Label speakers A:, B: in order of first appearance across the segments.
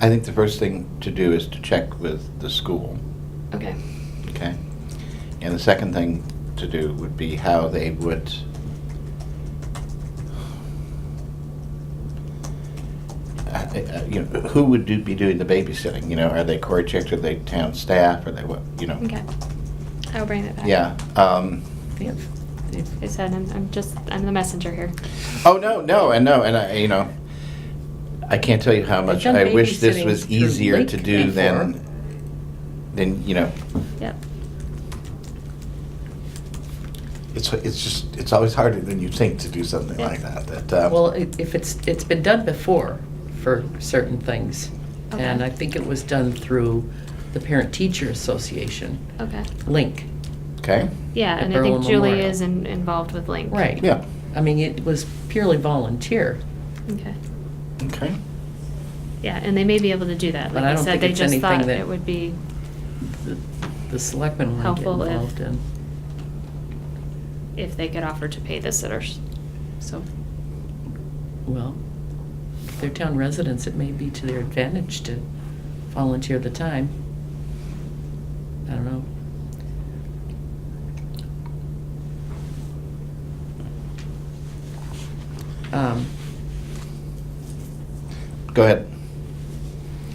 A: I think the first thing to do is to check with the school,
B: Okay.
A: okay? And the second thing to do would be how they would Uh, uh, you know, who would do, be doing the babysitting, you know, are they Cory Chicks, are they town staff, are they what, you know?
B: Okay. I'll bring that back.
A: Yeah, um,
B: Yep. I said I'm, I'm just I'm the messenger here.
A: oh, no, no, and no, and I, you know, I can't tell you how much
C: done
A: I wish this
C: babysitting
A: was
C: through
A: easier to
C: Link
A: do
C: before.
A: than, than, you know,
B: Yep.
A: it's, it's just, it's always harder than you think to do something
B: Yeah.
A: like that,
B: Um,
A: that,
C: Well,
A: uh,
C: i- if it's, it's been done before for certain things. And
B: Okay.
C: I think it was done through the Parent Teacher Association,
B: Okay.
C: Link.
A: okay?
B: Yeah,
C: At
B: and I think
C: Berlin
B: Julie
C: Memorial.
B: is in, involved with Link.
C: Right.
A: Yeah,
C: I mean, it was purely volunteer,
B: Okay.
A: okay.
B: Yeah, and they may be able to do that.
C: But
B: Like
C: I
B: I,
C: don't
B: said,
C: think
B: they
C: it's
B: just
C: anything
B: thought
C: that-
B: it would be
C: the- the selectmen want to get
B: Helpful if-
C: involved in.
B: if they could offer to pay the sitters. So
C: Well, if they're town residents, it may be to their advantage to volunteer the time. I don't know. Um,
A: Go ahead.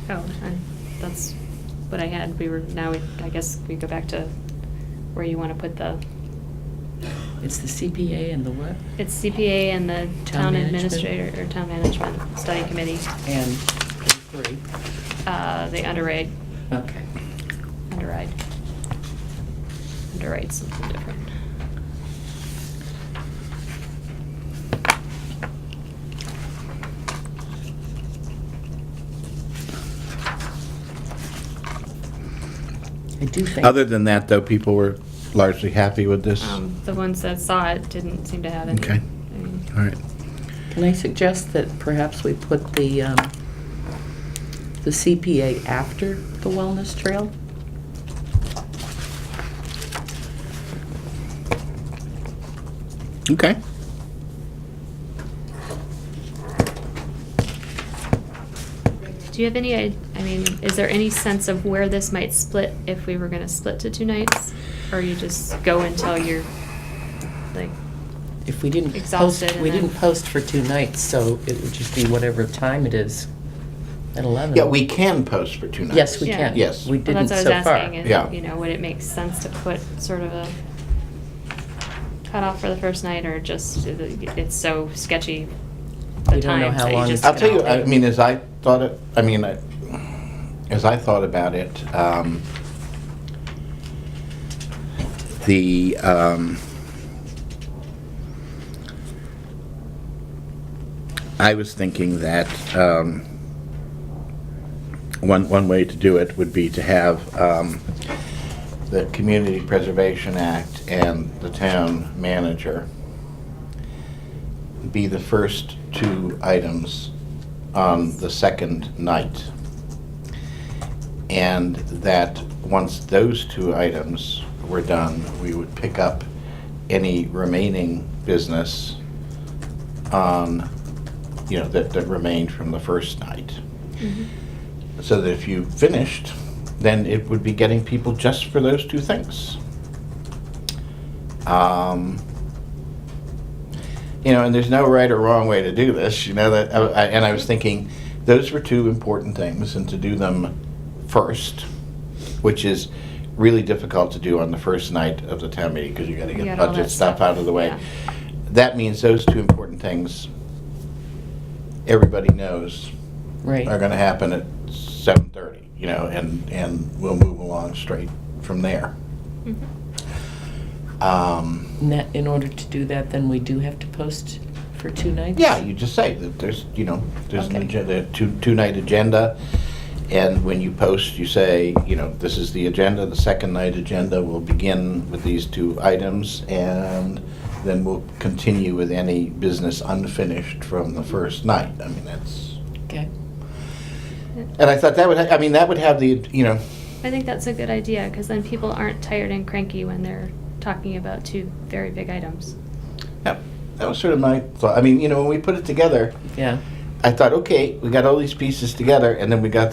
B: oh, and that's what I had. We were now. We, I guess we go back to where you want to put the.
C: It's the CPA and the what?
B: It's CPA and the town,
C: Town management.
B: administrator or town management study committee.
C: And the three.
B: Uh, they underwrite,
C: Okay.
B: underwrite, underwrite something different.
C: I do think.
A: Other than that, though, people were largely happy with this. All
B: Um, the ones that saw it didn't seem to have any.
A: Okay.
B: I mean,
A: right.
C: Can I suggest that perhaps we put the, um, the CPA after the wellness trail?
A: Okay.
B: Do you have any? I I mean, is there any sense of where this might split if we were going to split to two nights, or you just go until you're like?
C: If we didn't post,
B: Exhausted and
C: we
B: then-
C: didn't post for two nights, so it would just be whatever time it is at 11.
A: Yeah, we can post for two nights.
C: Yes, we
B: Yeah.
C: can.
A: Yes. Well,
C: We
B: Well,
C: didn't
B: that's
C: so
B: what I was
C: far.
B: asking. is,
A: Yeah.
B: You know, would it make sense to put sort of a cutoff for the first night, or just it's so sketchy the
C: We don't know
B: times
C: how
B: that you
C: long
B: just.
A: I'll tell
B: can
A: you, I
B: all-
A: mean, as I thought it, I mean, I- as I thought about it, um, the, um, I was thinking that, um, one, one way to do it would be to have, um, the Community Preservation Act and the town manager be the first two items on the second night. And that once those two items were done, we would pick up any remaining business on, you know, that, that remained from the first night.
C: Mm-hmm.
A: So that if you finished, then it would be getting people just for those two things. Um, you know, and there's no right or wrong way to do this. You know that, uh, I, I- and I was thinking, those were two important things, and to do them first, which is really difficult to do on the first night of the town meeting because you got to
B: You
A: get
B: got all
A: budget
B: that
A: stuff
B: stuff,
A: out of the way.
B: yeah.
A: That means those two important things. Everybody knows are
C: Right.
A: gonna happen at seven thirty, you know, and, and we'll move along straight from there.
B: Mhm.
A: Um,
C: And that, in order to do that, then we do have to post for two nights?
A: yeah, you just say that there's, you know, there's an
C: Okay.
A: agenda, two, two-night agenda, and when you post, you say, you know, this is the agenda, the second night agenda will begin with these two items, and then we'll continue with any business unfinished from the first night. I mean, that's,
C: Okay. Mm-hmm.
A: and I thought that would, ha- I mean, that would have the, you know,
B: I think that's a good idea, because then people aren't tired and cranky when they're talking about two very big items.
A: Yeah, that was sort of my thought. I mean, you know, when we put it together,
C: Yeah.
A: I thought, okay, we got all these pieces together, and then we got